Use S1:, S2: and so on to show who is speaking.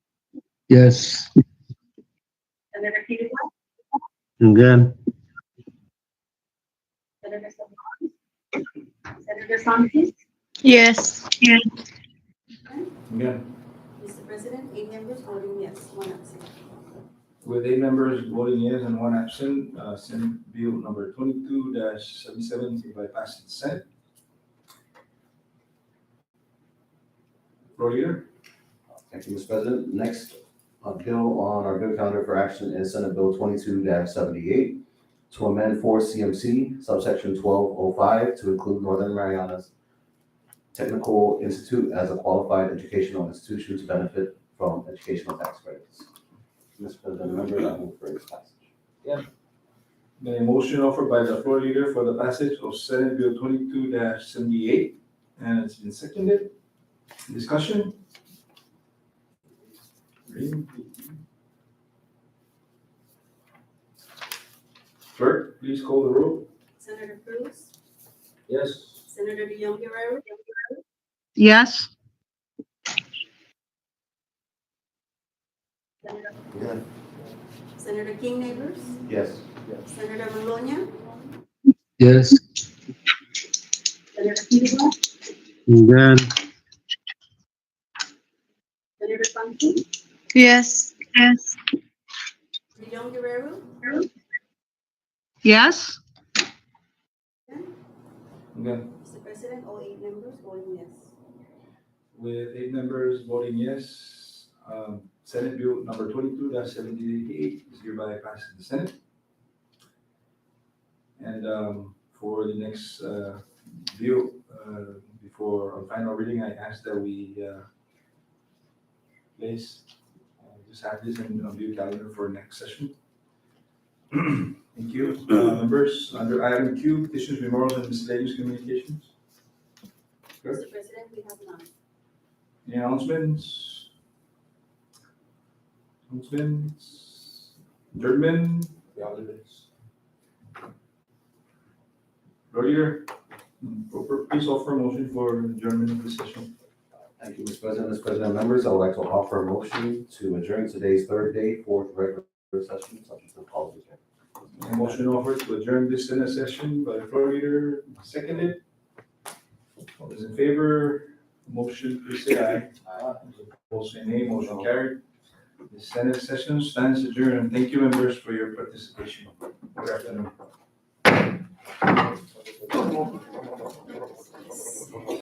S1: Yes.
S2: Senator Peterson,
S3: I'm good.
S2: Senator Salman, Senator Santis,
S4: Yes.
S5: I'm good.
S6: Mr. President, eight members voting yes, one absent.
S5: With eight members voting yes and one absent, uh, Senate Bill number twenty-two dash seventy-seven is by passing Senate. Floor leader,
S7: Thank you, Mr. President. Next uh, bill on our bill calendar for action is Senate Bill twenty-two seventy-eight to amend four CMC subsection twelve oh five to include Northern Marianas Technical Institute as a qualified educational institution to benefit from educational tax credits. Mr. President, member, I move for its passage.
S5: Been a motion offered by the floor leader for the passage of Senate Bill twenty-two seventy-eight, and it's been seconded. Discussion? Reading. Clerk, please call the roll.
S6: Senator Cruz,
S5: Yes.
S6: Senator De Jong Guerrero,
S4: Yes.
S2: Senator
S7: Yeah.
S6: Senator King Neighbors,
S7: Yes.
S6: Senator Maloney,
S1: Yes.
S2: Senator Peterson,
S3: I'm good.
S2: Senator Santis,
S4: Yes. Yes.
S6: De Jong Guerrero,
S4: Yes.
S5: I'm good.
S6: Mr. President, all eight members voting yes.
S5: With eight members voting yes, um, Senate Bill number twenty-two seventy-eight is hereby passed in the Senate. And um, for the next uh, bill, uh, before our final reading, I ask that we uh, place, uh, just have this in our bill calendar for next session. Thank you, Uh, members. Under item Q, petitions, memorials, and miscellaneous communications. Sure.
S6: Mr. President, we have none.
S5: Any announcements? Announcements? Adjournment? The others. Earlier, proper, please Hmm, offer a motion for adjournment of the session.
S7: Thank you, Mr. President. Mr. President, members, I would like to offer a motion to adjourn today's third day, fourth regular session, subject to policy.
S5: A motion offered to adjourn this Senate session by the floor leader, seconded. All those in favor, motion, please say aye. Aye. Opposed, say nay. Motion carried. The Senate session stands adjourned. Thank you, members, for your participation. Good afternoon.